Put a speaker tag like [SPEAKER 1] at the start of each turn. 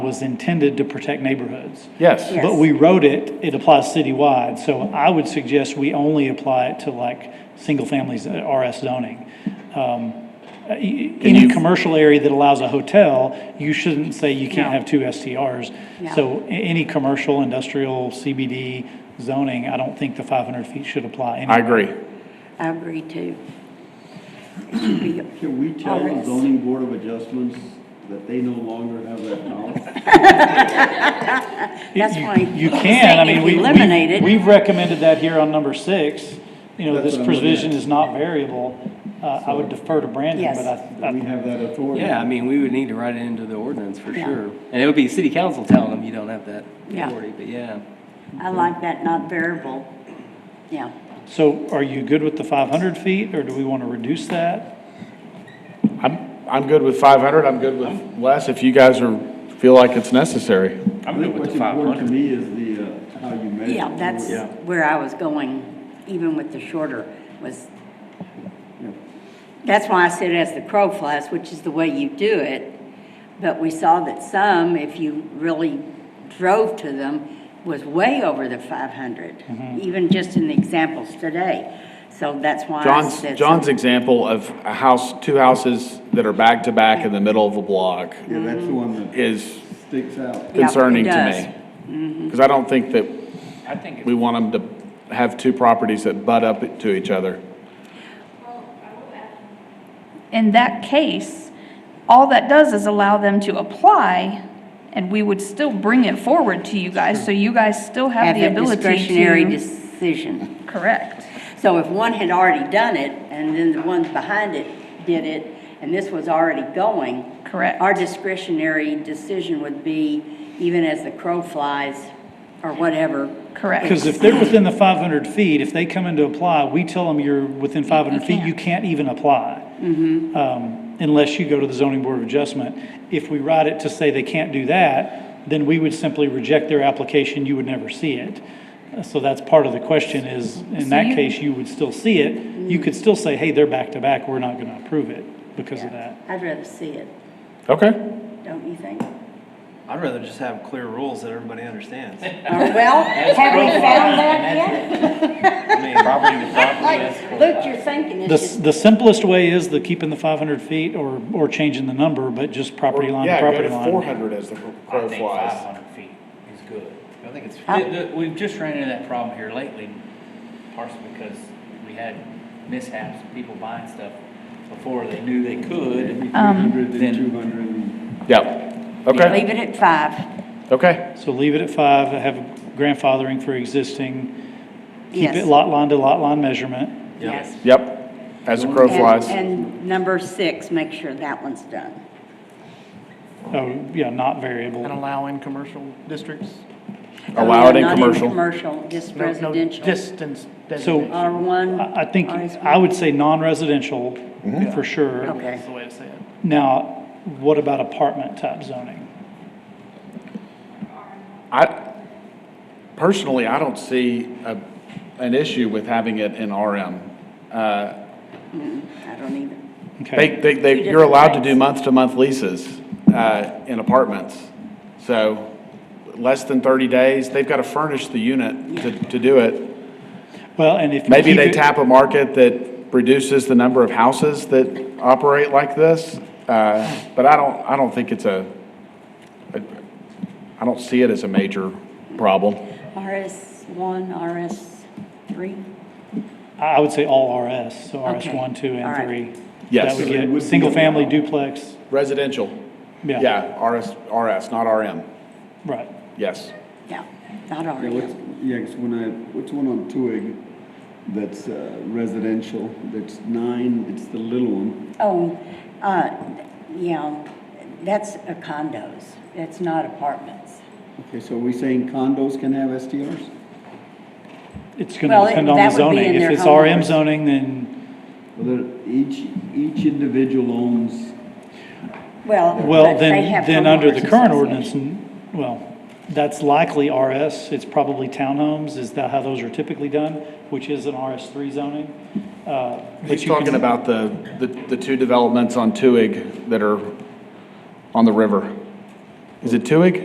[SPEAKER 1] was intended to protect neighborhoods.
[SPEAKER 2] Yes.
[SPEAKER 3] Yeah.
[SPEAKER 1] But we wrote it, it applies citywide, so I would suggest we only apply it to like, single families, uh, RS zoning. Um, uh, y- Any commercial area that allows a hotel, you shouldn't say you can't have two STRs.
[SPEAKER 3] No.
[SPEAKER 1] So a- any commercial, industrial, CBD zoning, I don't think the 500 feet should apply.
[SPEAKER 2] I
[SPEAKER 1] anyway.
[SPEAKER 2] agree.
[SPEAKER 3] I agree too. It should be
[SPEAKER 4] Can we tell the
[SPEAKER 3] Alright.
[SPEAKER 4] zoning board of adjustments that they no longer have that power?
[SPEAKER 3] That's
[SPEAKER 1] You-
[SPEAKER 3] why
[SPEAKER 1] You
[SPEAKER 3] I'm
[SPEAKER 1] can, I
[SPEAKER 3] saying
[SPEAKER 1] mean,
[SPEAKER 3] if
[SPEAKER 1] we,
[SPEAKER 3] you eliminate
[SPEAKER 1] we-
[SPEAKER 3] it-
[SPEAKER 1] we've recommended that here on number six. You know,
[SPEAKER 4] That's
[SPEAKER 1] this
[SPEAKER 4] what I'm looking
[SPEAKER 1] provision
[SPEAKER 4] at.
[SPEAKER 1] is not variable. Uh, I would defer to Brandon,
[SPEAKER 3] Yes.
[SPEAKER 1] but I,
[SPEAKER 4] Do we have that authority?
[SPEAKER 5] Yeah, I mean, we would need to write it into the ordinance for
[SPEAKER 3] Yeah.
[SPEAKER 5] sure. And it would be city council telling them you don't have that
[SPEAKER 3] Yeah.
[SPEAKER 5] authority, but yeah.
[SPEAKER 3] I like that not variable. Yeah,
[SPEAKER 1] So are you good with the 500 feet, or do we want to reduce that?
[SPEAKER 2] I'm, I'm good with 500, I'm good with less if you guys are, feel like it's necessary.
[SPEAKER 4] I think what's important to me is the, uh, how you measure.
[SPEAKER 3] yeah, that's where I was going, even with the shorter was. That's why I said as the crow flies, which is the way you do it. But we saw that some, if you really drove to them, was way over the five hundred,
[SPEAKER 2] Mm-hmm.
[SPEAKER 3] even just in the examples today. So that's why I
[SPEAKER 2] John's,
[SPEAKER 3] said.
[SPEAKER 2] John's example of a house, two houses that are back to back in the middle of a block
[SPEAKER 4] Yeah, that's the one that
[SPEAKER 2] is
[SPEAKER 4] sticks out.
[SPEAKER 3] Yeah, it
[SPEAKER 2] concerning
[SPEAKER 3] does. Mm-hmm.
[SPEAKER 2] to me. Because I don't think that
[SPEAKER 5] I think.
[SPEAKER 2] we want them to have two properties that butt up to each other.
[SPEAKER 6] in that case, all that does is allow them to apply, and we would still bring it forward to you guys, so you guys still have
[SPEAKER 3] Have
[SPEAKER 6] the
[SPEAKER 3] a
[SPEAKER 6] ability to.
[SPEAKER 3] discretionary decision.
[SPEAKER 6] Correct.
[SPEAKER 3] So if one had already done it, and then the ones behind it did it, and this was already going.
[SPEAKER 6] Correct.
[SPEAKER 3] Our discretionary decision would be, even as the crow flies, or whatever.
[SPEAKER 6] Correct.
[SPEAKER 1] Because if they're within the 500 feet, if they come in to apply, we tell them you're within 500 feet, you can't even apply.
[SPEAKER 3] Mm-hmm.
[SPEAKER 1] Um, Unless you go to the zoning board of adjustment. If we write it to say they can't do that, then we would simply reject their application, you would never see it. Uh, So that's part of the question is, in that
[SPEAKER 6] you-
[SPEAKER 1] case, you would still see it. You
[SPEAKER 3] Mm.
[SPEAKER 1] could still say, hey, they're back to back, we're not going to approve it because of that.
[SPEAKER 3] I'd rather see it,
[SPEAKER 2] Okay,
[SPEAKER 3] don't you think?
[SPEAKER 7] I'd rather just have clear rules that everybody understands. I
[SPEAKER 3] Or, Uh, Well, have we found that yet?
[SPEAKER 7] mean, property to property.
[SPEAKER 3] Like, Luke, you're thinking
[SPEAKER 1] The,
[SPEAKER 3] it's
[SPEAKER 1] s-
[SPEAKER 3] just,
[SPEAKER 1] the simplest way is the keeping the 500 feet or, or changing the number, but just property line to
[SPEAKER 2] yeah, go
[SPEAKER 1] property
[SPEAKER 2] to
[SPEAKER 1] line.
[SPEAKER 2] 400 as the crow flies.
[SPEAKER 8] feet is good.
[SPEAKER 7] I think it's,
[SPEAKER 3] I-
[SPEAKER 8] The- the- We've just ran into that problem here lately, partially because we had mishaps, people buying stuff before they knew they
[SPEAKER 3] Um,
[SPEAKER 8] could.
[SPEAKER 4] 300 and
[SPEAKER 8] then-
[SPEAKER 4] 200 and-
[SPEAKER 2] Yep, okay,
[SPEAKER 3] leave it at five,
[SPEAKER 2] okay.
[SPEAKER 1] So leave it at five, have grandfathering for existing, keep
[SPEAKER 3] yes.
[SPEAKER 1] it lot line to lot line measurement.
[SPEAKER 3] Yes.
[SPEAKER 2] Yep, as the crow
[SPEAKER 3] And-
[SPEAKER 2] flies.
[SPEAKER 3] And number six, make sure that one's done.
[SPEAKER 1] Oh, yeah, not variable.
[SPEAKER 9] And allow in commercial districts?
[SPEAKER 2] Allow it in
[SPEAKER 3] Not
[SPEAKER 2] commercial.
[SPEAKER 3] commercial, just
[SPEAKER 9] No- no
[SPEAKER 3] residential.
[SPEAKER 9] Distance
[SPEAKER 1] So-
[SPEAKER 9] designation,
[SPEAKER 3] R1.
[SPEAKER 1] I I think,
[SPEAKER 3] RS1.
[SPEAKER 1] I would say non-residential,
[SPEAKER 2] Mm-hmm.
[SPEAKER 1] for sure.
[SPEAKER 3] Okay.
[SPEAKER 9] that's the way to say it.
[SPEAKER 1] Now, what about apartment type zoning?
[SPEAKER 2] I, personally, I don't see a, an issue with having it in RM. Uh,
[SPEAKER 3] I don't even.
[SPEAKER 1] Okay,
[SPEAKER 2] They, they, they, you're allowed to do month-to-month leases, uh, in apartments. So, less than thirty days, they've gotta furnish the unit to, to do it.
[SPEAKER 1] well, and if. you
[SPEAKER 2] Maybe
[SPEAKER 1] keep
[SPEAKER 2] they
[SPEAKER 1] it-
[SPEAKER 2] tap a market that reduces the number of houses that operate like this. Uh, but I don't, I don't think it's a, a- I don't see it as a major problem.
[SPEAKER 3] RS one, RS three?
[SPEAKER 1] I I would say all RS, so RS
[SPEAKER 3] Okay.
[SPEAKER 1] one, two,
[SPEAKER 3] All
[SPEAKER 1] and
[SPEAKER 3] right.
[SPEAKER 1] three.
[SPEAKER 2] Yes.
[SPEAKER 1] That
[SPEAKER 4] So it
[SPEAKER 1] would
[SPEAKER 4] would
[SPEAKER 1] get
[SPEAKER 4] be
[SPEAKER 1] single-family
[SPEAKER 4] allowed.
[SPEAKER 1] duplex,
[SPEAKER 2] Residential,
[SPEAKER 1] yeah.
[SPEAKER 2] yeah, RS, RS, not RM,
[SPEAKER 1] Right.
[SPEAKER 2] yes.
[SPEAKER 3] Yeah, not
[SPEAKER 4] Yeah, what's-
[SPEAKER 3] RS.
[SPEAKER 4] Yeah, 'cause when I, what's one on Twig that's uh, residential, that's nine, it's the little one.
[SPEAKER 3] Oh, uh, yeah, that's a condos. It's not apartments.
[SPEAKER 4] Okay, so are we saying condos can have STRs?
[SPEAKER 1] It's gonna
[SPEAKER 3] Well, it-
[SPEAKER 1] depend on the
[SPEAKER 3] that would be
[SPEAKER 1] zoning.
[SPEAKER 3] in
[SPEAKER 1] If
[SPEAKER 3] their
[SPEAKER 1] it's
[SPEAKER 3] home
[SPEAKER 1] RM
[SPEAKER 3] orders.
[SPEAKER 1] zoning, then,
[SPEAKER 4] Well, they're- each, each individual owns
[SPEAKER 3] Well,
[SPEAKER 1] well,
[SPEAKER 3] but they
[SPEAKER 1] then,
[SPEAKER 3] have
[SPEAKER 1] then under the
[SPEAKER 3] homeowners
[SPEAKER 1] current ordinance,
[SPEAKER 3] association.
[SPEAKER 1] n- well, that's likely RS, it's probably townhomes, is that how those are typically done, which is an RS three zoning? Uh, but
[SPEAKER 2] He's
[SPEAKER 1] you can-
[SPEAKER 2] talking about the, the, the two developments on Tuig that are on the river. Is it Tuig?